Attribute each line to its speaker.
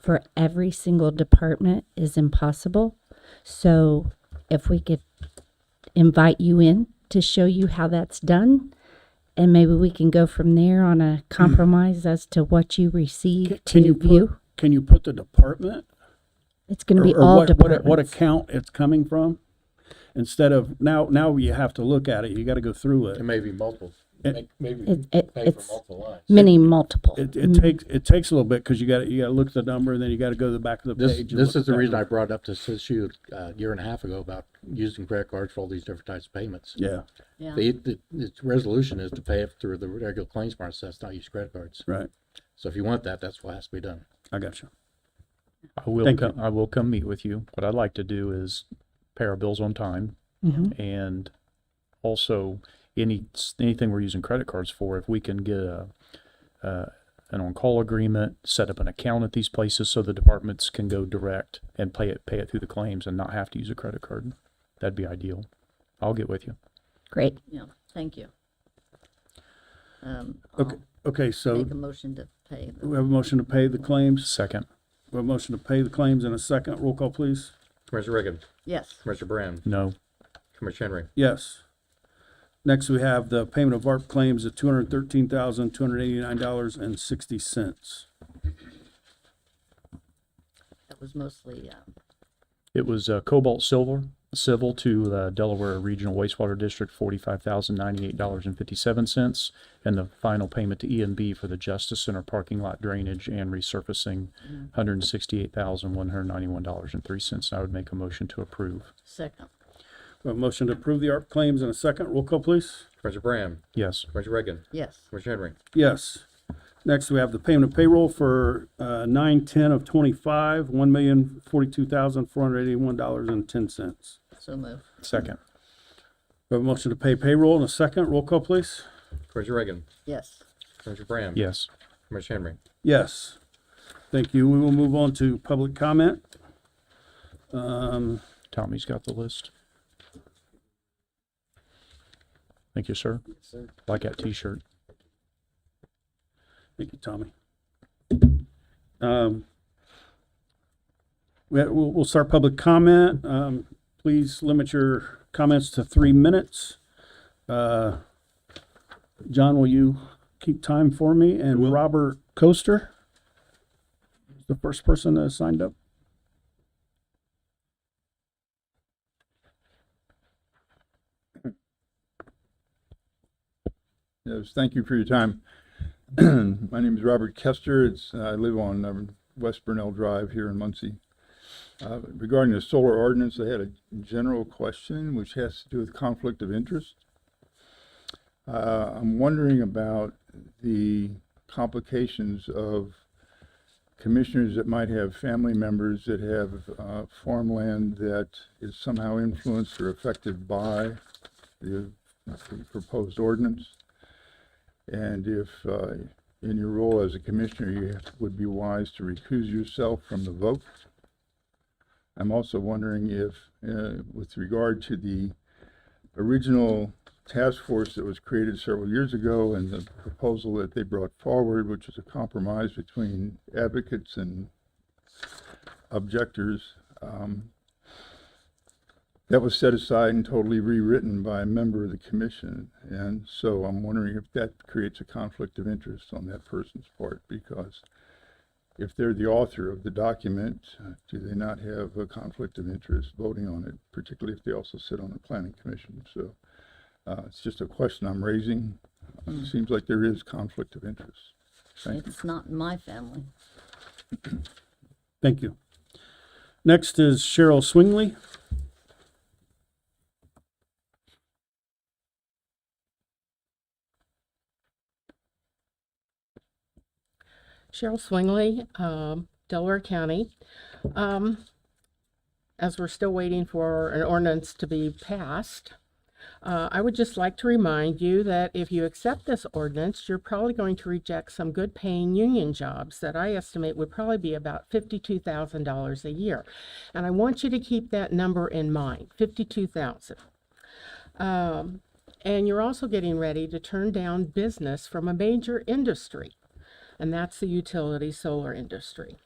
Speaker 1: for every single department is impossible. So if we could invite you in to show you how that's done, and maybe we can go from there on a compromise as to what you receive to
Speaker 2: Mm-hmm. Can you
Speaker 1: view.
Speaker 2: put, can you put the department?
Speaker 1: it's going to
Speaker 2: or-
Speaker 1: be
Speaker 2: or
Speaker 1: all
Speaker 2: what- what-
Speaker 1: departments.
Speaker 2: What account it's coming from? Instead of, now, now you have to look at it, you gotta go through
Speaker 3: It
Speaker 2: it.
Speaker 3: may be multiple,
Speaker 2: It-
Speaker 3: Make- maybe
Speaker 1: It- it-
Speaker 3: pay for
Speaker 1: it's-
Speaker 3: multiple lines.
Speaker 1: Many multiple.
Speaker 2: It, it takes, it takes a little bit, cause you gotta, you gotta look at the number, and then you gotta go to the back of the
Speaker 3: This,
Speaker 2: page. and
Speaker 3: this
Speaker 2: look
Speaker 3: is the
Speaker 2: at that
Speaker 3: reason I
Speaker 2: number.
Speaker 3: brought up this issue uh, a year and a half ago about using credit cards for all these different types of payments.
Speaker 2: Yeah,
Speaker 1: Mm-hmm. Yeah.
Speaker 3: The, the, its resolution is to pay it through the regular claims process, not use credit cards.
Speaker 2: right,
Speaker 3: So if you want that, that's what has to be done.
Speaker 2: I got you.
Speaker 4: I will
Speaker 2: Thank you.
Speaker 4: come, I will come meet with you. What I'd like to do is pay our bills on time
Speaker 2: Mm-hmm.
Speaker 1: Mhm.
Speaker 4: and also any, anything we're using credit cards for, if we can get a, uh, an on-call agreement, set up an account at these places so the departments can go direct and pay it, pay it through the claims and not have to use a credit card. That'd be ideal. I'll get with you.
Speaker 1: Great.
Speaker 5: Yeah, thank you. Um,
Speaker 2: Okay, okay,
Speaker 5: I'll
Speaker 2: so
Speaker 5: Make a motion to pay. the-
Speaker 2: we have a motion to pay the claims,
Speaker 4: Second,
Speaker 2: we have a motion to pay the claims in a second, roll call please.
Speaker 3: Commissioner Reagan,
Speaker 5: Yes,
Speaker 3: Commissioner Brand,
Speaker 4: no,
Speaker 3: Commissioner Henry.
Speaker 2: Yes. Next, we have the payment of ARP claims of two hundred thirteen thousand, two hundred eighty-nine dollars and sixty cents.
Speaker 5: that was mostly, uh,
Speaker 4: it was uh, Cobalt Silver, civil to the Delaware Regional Wastewater District, forty-five thousand ninety-eight dollars and fifty-seven cents. And the final payment to E and B for the Justice Center parking lot drainage and resurfacing, hundred and sixty-eight thousand one hundred ninety-one dollars and three cents. I would make a motion to approve.
Speaker 5: second,
Speaker 2: We have a motion to approve the ARP claims in a second, roll call please.
Speaker 3: Commissioner Brand,
Speaker 4: Yes,
Speaker 3: Commissioner Reagan,
Speaker 5: yes,
Speaker 3: Commissioner Henry.
Speaker 2: Yes. Next, we have the payment of payroll for uh, nine ten of twenty-five, one million forty-two thousand four hundred eighty-one dollars and ten cents.
Speaker 5: so move,
Speaker 4: second,
Speaker 2: We have a motion to pay payroll in a second. Roll call, please.
Speaker 3: Commissioner Reagan,
Speaker 5: yes,
Speaker 3: Commissioner Brand.
Speaker 4: yes.
Speaker 3: Commissioner Henry.
Speaker 2: Yes. Thank you. We will move on to public comment. Um,
Speaker 4: Tommy's got the list. Thank you, sir. Like that t-shirt.
Speaker 2: Thank you, Tommy. Um, we- We'll we'll start public comment. Um, Please limit your comments to three minutes. Uh, John, will you keep time for me? And Robert Coaster, is the first person that signed up.
Speaker 6: Yes, thank you for your time. My name is Robert Kester. It's, uh, I live on um, West Burnell Drive here in Muncie. Uh, Regarding the solar ordinance, I had a general question which has to do with conflict of interest. Uh, I'm wondering about the complications of commissioners that might have family members that have uh, farmland that is somehow influenced or affected by the the proposed ordinance. And if, uh, in your role as a commissioner, you would be wise to recuse yourself from the vote. I'm also wondering if, uh, with regard to the original task force that was created several years ago and the proposal that they brought forward, which was a compromise between advocates and objectors, um, that was set aside and totally rewritten by a member of the commission. And so I'm wondering if that creates a conflict of interest on that person's part, because if they're the author of the document, uh, do they not have a conflict of interest voting on it, particularly if they also sit on the planning commission? So uh, it's just a question I'm raising. It seems like there is conflict of interest. Thank you.
Speaker 5: it's not in my family.
Speaker 2: Thank you. Next is Cheryl Swingley.
Speaker 7: Cheryl Swingley, um, Delaware County. Um, as we're still waiting for an ordinance to be passed, uh, I would just like to remind you that if you accept this ordinance, you're probably going to reject some good paying union jobs that I estimate would probably be about fifty-two thousand dollars a year. And I want you to keep that number in mind, fifty-two thousand. Um, and you're also getting ready to turn down business from a major industry and that's the utility solar industry.